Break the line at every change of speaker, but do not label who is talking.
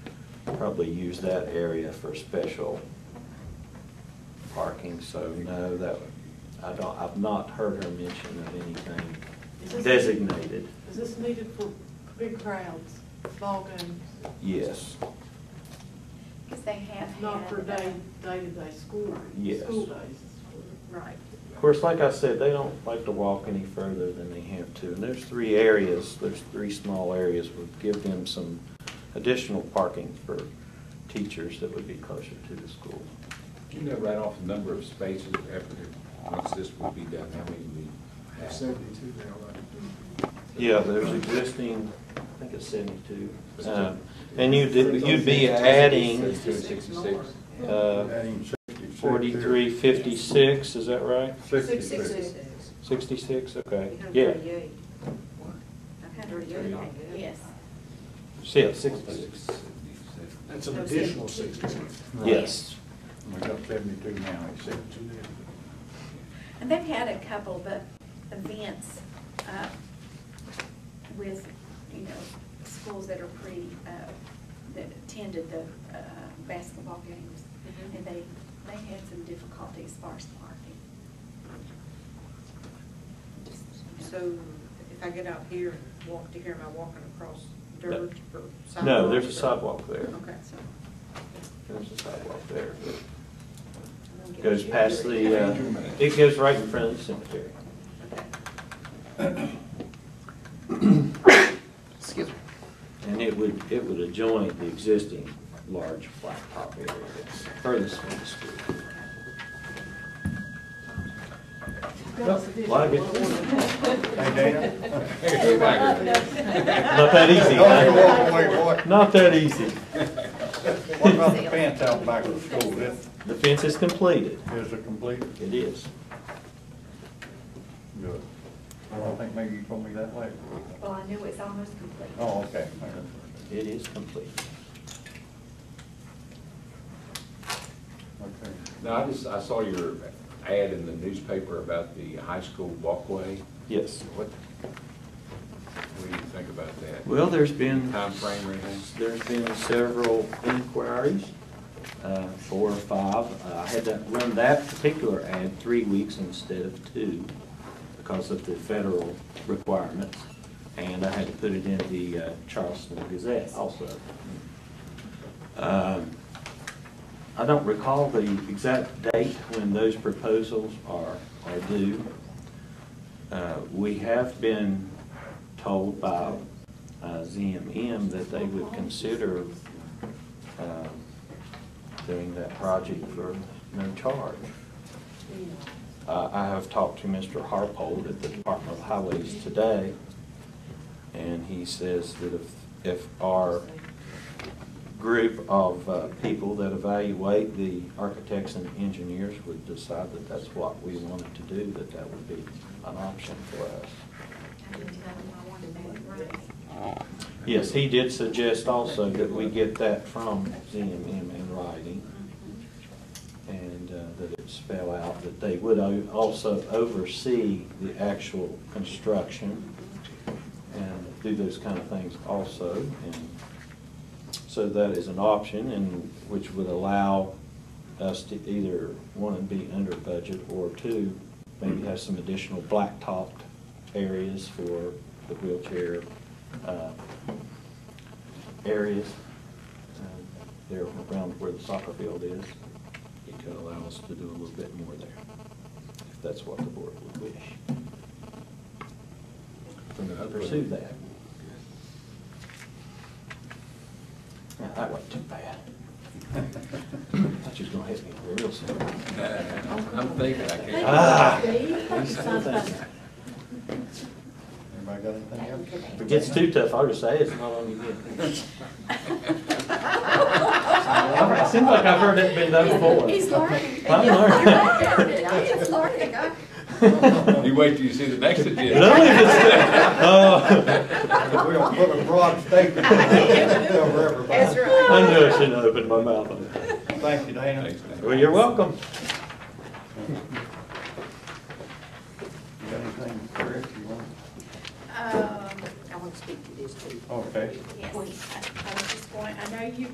probably use that area for special parking, so no, that, would- I don't, I've not heard her mention of anything
Is this-
designated.
Is this needed for big crowds, ball games,
Yes,
Because they have had. uh,
not for day, day-to-day school,
Yes.
school days?
Right.
of course, like I said, they don't like to walk any further than they have to, and there's three areas, there's three small areas, would give them some additional parking for teachers that would be closer to the school.
You know right off the number of spaces after, once this will be done, how many we have?
Seventy-two now, right?
Yeah, there's existing, I think it's seventy-two. Um, And you'd, you'd be adding
Sixty-six.
uh,
Adding 66 there.
forty-three, fifty-six, is that right?
Sixty-six.
Sixty-six, okay, yeah.
I've had thirty-eight.
Yes.
See, it's sixty-six,
That's an additional sixty-two.
yes.
We got seventy-two now, it's seventy-two there.
And they've had a couple, but events uh, with, you know, schools that are pre, uh, that attended the uh, basketball games.
Mm-hmm.
Mhm.
And they, they had some difficulty as far as parking. Just, you know.
So if I get out here and walk to here, am I walking across dirt or sidewalk?
No, there's a
or-
sidewalk there.
Okay, so.
There's a sidewalk there.
I'm gonna get
Goes
you.
past the, uh, it goes right in front of the cemetery.
Okay.
Excuse me.
And it would, it would adjoin the existing large blacktop area that's furthest from the school. Like
Hey, Dana?
Hey, Tiger.
Not that easy,
Don't
huh?
walk away, boy.
Not that easy.
What about the fence out back of the school? That
The fence is completed.
is a complete,
It is.
good. I don't think maybe you told me that later.
Well, I knew it's almost complete.
Oh, okay.
It is complete.
Okay.
No, I just, I saw your ad in the newspaper about the high school walkway.
Yes.
What, what do you think about that?
Well, there's been.
Time frame or anything?
There's been several inquiries, uh, four or five. Uh, I had to run that particular ad three weeks instead of two because of the federal requirements. And I had to put it in the uh, Charleston Gazette also. Um, I don't recall the exact date when those proposals are, are due. Uh, We have been told by uh, ZMM that they would consider um, doing that project for no charge. Uh, I have talked to Mr. Harpold at the Department of Highways today, and he says that if, if our group of uh, people that evaluate the architects and engineers would decide that that's what we wanted to do, that that would be an option for us.
I didn't tell them I wanted that, right?
Yes, he did suggest also that we get that from ZMM in writing,
Mm-hmm.
and uh, that it spell out that they would o- also oversee the actual construction and do those kind of things also, and so that is an option, and which would allow us to either, one, be under budget, or two, maybe have some additional blacktopped areas for the wheelchair uh, areas uh, there around where the soccer field is. It could allow us to do a little bit more there, if that's what the board would wish. For me to pursue that. Now, that wasn't too bad. Thought you was gonna hit me real soon.
I'm thinking, I can't.
Ah.
Anybody got anything else?
If it gets too tough, I'll just say it's not on you yet. It seems like I've heard it been done before.
He's learning.
I'm learning.
He's learning. I-
You wait till you see the next agenda.
No, it's-
We don't put a broad statement over
That's
everybody.
right.
I knew I shouldn't have opened my mouth on that.
Thank you, Dana.
Thanks, Dana.
Well, you're welcome.
You got anything, Chris, you want?
Um,
I want to speak to these two.
Okay.
Yes, I I was just going, I know you